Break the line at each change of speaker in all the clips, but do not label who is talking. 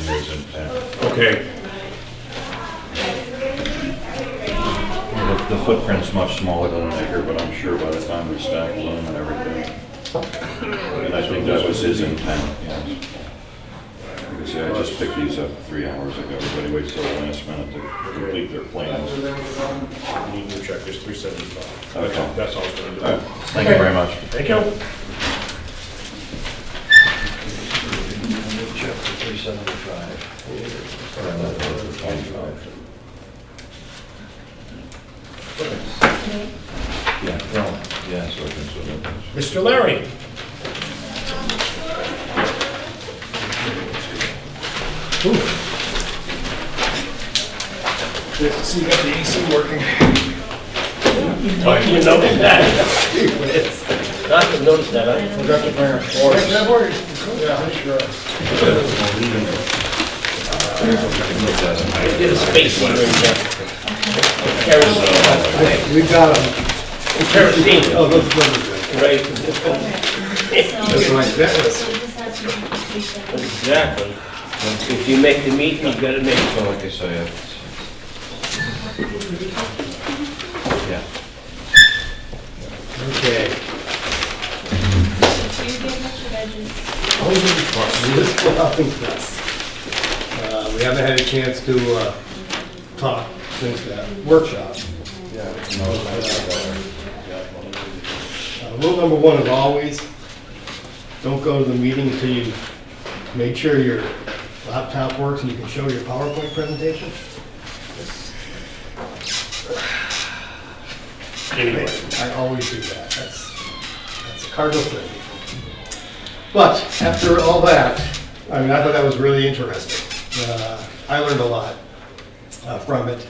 impact.
Okay,
The- The footprint's much smaller than an acre, but I'm sure by the time we stack them and everything. And I think that was his intent, yes. Like I say, I just picked these up three hours ago. Everybody waits till the last minute to complete their plans.
we need to check this three seventy-five.
Okay.
That's all it's gonna
All right,
do.
Thank you very much.
Thank you.
Check for three seventy-five.
Yeah, well, yeah, so I can sort of.
Mr. Larry?
So you got the AC
I
working?
didn't notice that.
I haven't noticed that, I,
Forgot to bring our forks. Yeah, sure.
I did a space heater in there. Kerosene,
We got them.
kerosene,
Oh, those numbers.
right,
Just like that.
So this has to be completion.
exactly. If you make the meat, you gotta make it.
So like I say, it's. Yeah.
Okay.
So you gave us your veggies.
Uh, We haven't had a chance to uh, talk since that workshop. Uh, Rule number one is always, don't go to the meeting until you make sure your laptop works and you can show your PowerPoint presentation.
Anyway,
I always do that, that's, that's a cardinal thing. But after all that, I mean, I thought that was really interesting. Uh, I learned a lot uh, from it.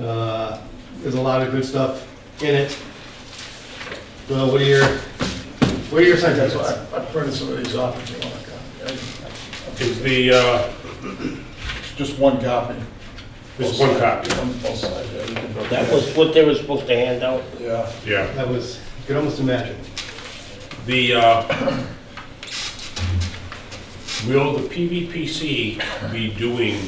Uh, There's a lot of good stuff in it. Well, what are your, what are your sentiments?
I printed some of these off if you want to
is the, uh,
Just one copy.
Just one copy.
On both sides, yeah, you can vote.
That was what they were supposed to hand out.
Yeah,
yeah.
That was, you could almost imagine.
The, uh, will the PVPC be doing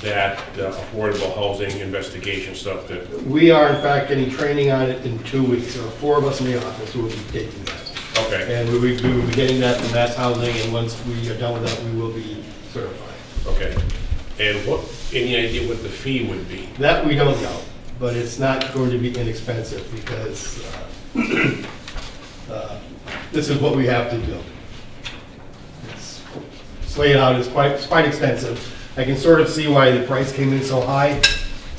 that uh, affordable housing investigation stuff that,
We are in fact getting training on it in two weeks. There are four of us in the office who will be taking that.
okay,
And we will be- we will be getting that from Mass Housing, and once we are done with that, we will be certified.
okay. And what, any idea what the fee would be?
That we don't know, but it's not going to be inexpensive because uh, uh, this is what we have to do. It's it's laid out, it's quite, it's quite expensive. I can sort of see why the price came in so high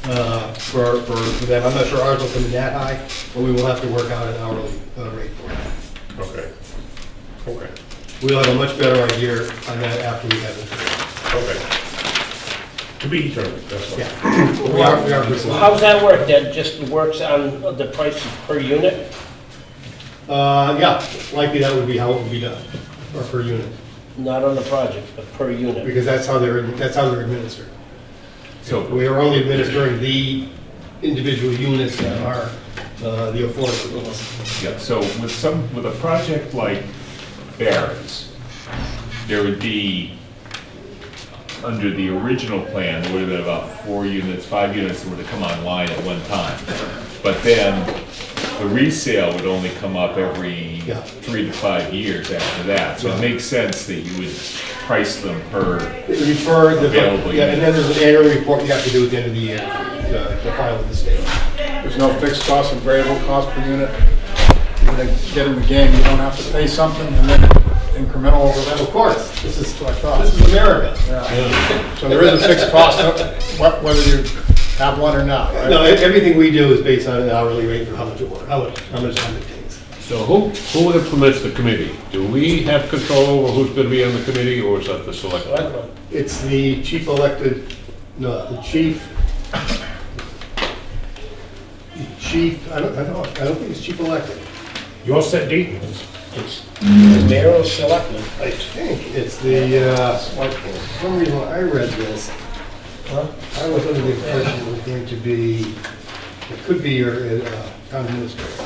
uh, for, for for them. I'm not sure ours will come in that high, but we will have to work out an hourly uh, rate for that.
Okay, okay,
We'll have a much better idea on that after we have it.
okay. To be determined, that's all.
Yeah, we are, we are pursuing.
Well, How's that work, that just works on the prices per unit?
Uh, yeah, likely that would be how it would be done, or per unit,
Not on the project, but per unit.
because that's how they're, that's how they're administered. So we are only administering the individual units that are, uh, the affordable ones.
Yeah, so with some, with a project like Barron's, there would be, under the original plan, there would have been about four units, five units that were to come online at one time. But then the resale would only come up every
Yeah.
three to five years after that. So it makes sense that you would price them per,
Refer the,
Available
yeah, and then there's an annual report you have to do at the end of the year, the, the file with the state.
there's no fixed cost and variable cost per unit. When they get in the game, you don't have to pay something and then incremental over
But Of
that.
course, this is, uh,
That's what I
this
thought.
is America.
So there is a fixed cost, wh- whether you have one or not, right?
No, e- everything we do is based on an hourly rate for how much it, wa- how much, how much time it takes.
So who, who implements the committee? Do we have control over who's gonna be on the committee, or is that the select?
It's the chief elected, no, the chief, the chief, I don't, I don't, I don't think it's chief elected.
You all set, Dean?
It's the mayor or selectmen.
I think it's the, uh, for some reason I read this. I was under the impression it was going to be, it could be your uh, town administrator.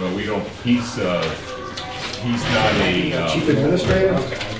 well, we don't, he's, uh, he's not a,
Chief
um,
administrator?